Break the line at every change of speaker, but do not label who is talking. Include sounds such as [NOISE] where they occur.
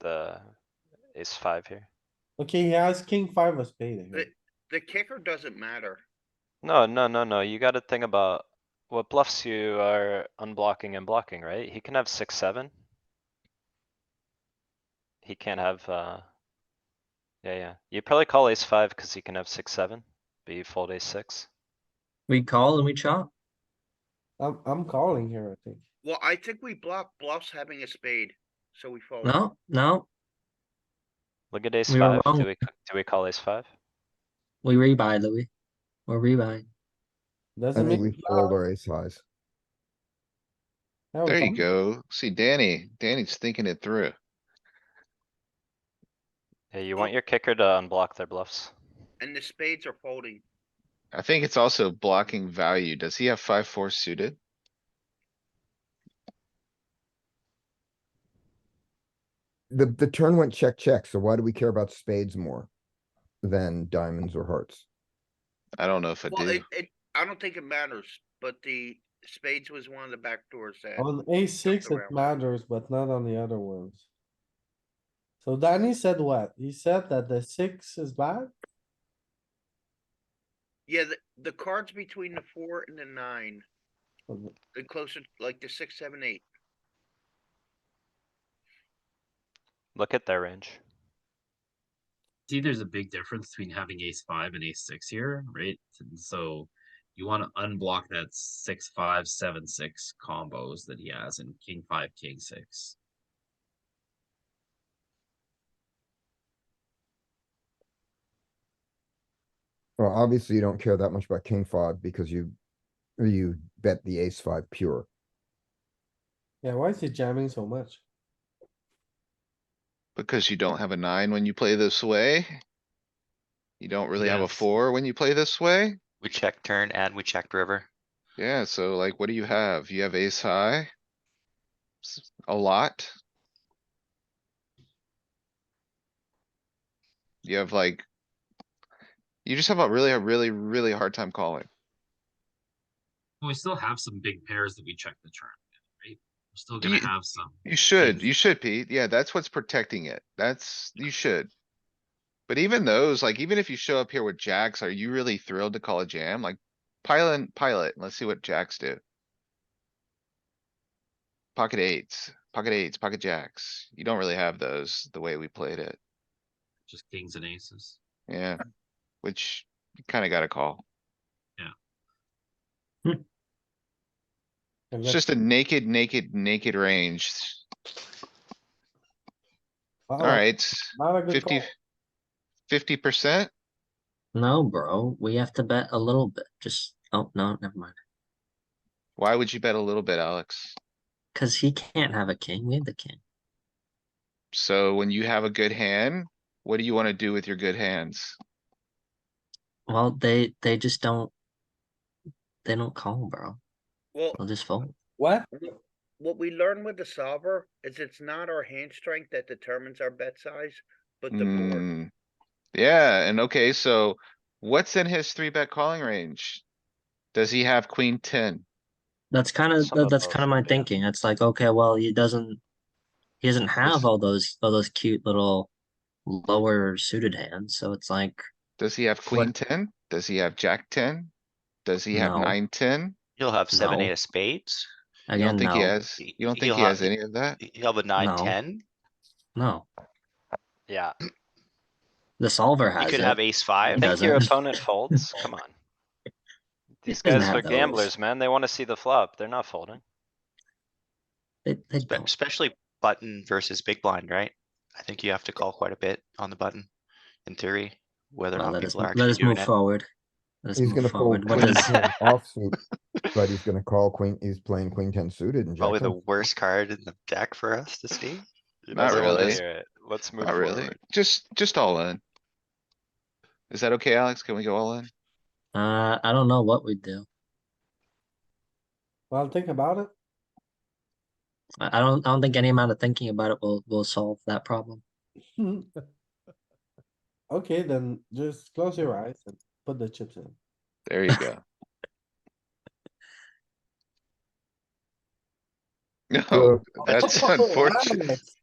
the ace five here.
Okay, he has king five of spade. I
Eh.
think.
The kicker doesn't matter.
No, no, no, no, you gotta think about what bluffs you are unblocking and blocking, right? He can have six, seven. He can't have, uh. Yeah, yeah, you probably call ace five cuz he can have six, seven, but you fold ace six.
We call and we chop.
I'm, I'm calling here, I think.
Well, I think we block bluffs having a spade, so we fold.
No, no,
Look at ace
We were
five, do
wrong.
we, c- do we call ace five?
we rebuy, Louis. We're rebuying.
I
Doesn't
think
make.
we
it
fold
loud.
our ace highs.
Yeah, we
There you
call.
go. See, Danny, Danny's thinking it through.
Yeah, you want your kicker to unblock their bluffs.
And the spades are folding.
I think it's also blocking value. Does he have five, four suited?
The, the turn went check, check, so why do we care about spades more than diamonds or hearts?
I don't know if I
Well,
do.
it, it, I don't think it matters, but the spades was one of the back doors that.
On a six,
Jumped
it
around.
matters, but not on the other ones. So Danny said what? He said that the six is bad?
Yeah, the, the cards between the four and the nine,
Or-
the closer, like the six, seven, eight.
Look at their range.
see there's a big difference between having ace five and ace six here, right? And so you want to unblock that six five seven six combos that he has in king five king six.
Well, obviously you don't care that much about king five because you, you bet the ace five pure.
Yeah, why is he jamming so much?
Because you don't have a nine when you play this way. You don't really have a
Yes.
four when you play this way.
We checked turn and we checked river.
Yeah, so like, what do you have? You have ace high? S- A lot? You have like. You just have a really, a really, really hard time calling.
But we still have some big pairs that we check the turn, with, right? We're still
Do
gonna
you-
have some.
You should,
Yes.
you should, Pete. Yeah, that's what's protecting it. That's, you should. But even those, like, even if you show up here with jacks, are you really thrilled to call a jam? Like, pilot, pilot, let's see what jacks do. Pocket eights, pocket eights, pocket jacks. You don't really have those the way we played it.
Just kings and aces.
Yeah, which you kinda gotta call.
And
It's
that-
just a naked, naked, naked range.
wow,
Alright,
Not a good
fifty.
call.
Fifty percent?
No, bro, we have to bet a little bit. Just, oh, no, never mind.
Why would you bet a little bit, Alex?
Cause he can't have a king. We have the king.
So when you have a good hand, what do you wanna do with your good hands?
Well, they, they just don't. They don't call, bro.
Well,
They'll just fold.
What?
what we learn with the solver is it's not our hand strength that determines our bet size, but the board.
Mm. Yeah, and okay, so what's in his three bet calling range? Does he have queen ten?
That's kind of,
Some of
that's
those,
kind of my
yeah.
thinking. It's like, okay, well, he doesn't. He doesn't have all those, all those cute little lower suited hands, so it's like,
Does he have queen ten? Does he have jack ten? Does he have
No.
nine, ten?
He'll have seven,
No.
eight of spades.
You don't
again,
think he
no,
has,
He-
you don't think
he'll
he
have-
has any of that?
He'll have a nine,
No.
ten.
no.
Yeah,
The solver
He
has
could have
it.
ace five.
I think your
doesn't.
opponent
[LAUGHS]
folds, come on. These
doesn't
guys
have
are
those.
gamblers, man, they wanna see the flop, they're not folding.
[LAUGHS]
They, they
Spe-
don't.
Especially button versus big blind, right? I think you have to call quite a bit on the button, in theory, whether or
Well,
not
let us,
people are
let us
actually doing
move
it.
forward. Let us
He's
move
gonna fold
forward. What
queen
does-
ten offsuit, but he's gonna call queen, he's playing queen ten suited and jack
Probably the
ten.
worst card in the deck for us to see.
Not
Let's go
really.
hear it. Let's move
Not really.
forward.
Just, just all in. Is that okay, Alex? Can we go all in?
uh, I don't know what we'd do.
Well, think about it.
I, I don't. I don't think any amount of thinking about it will will solve that problem.
Okay, then just close your eyes and put the chips in.
There you go. [LAUGHS] No,
Well,
that's
Oh,
Oh, unfortunate.
Alex,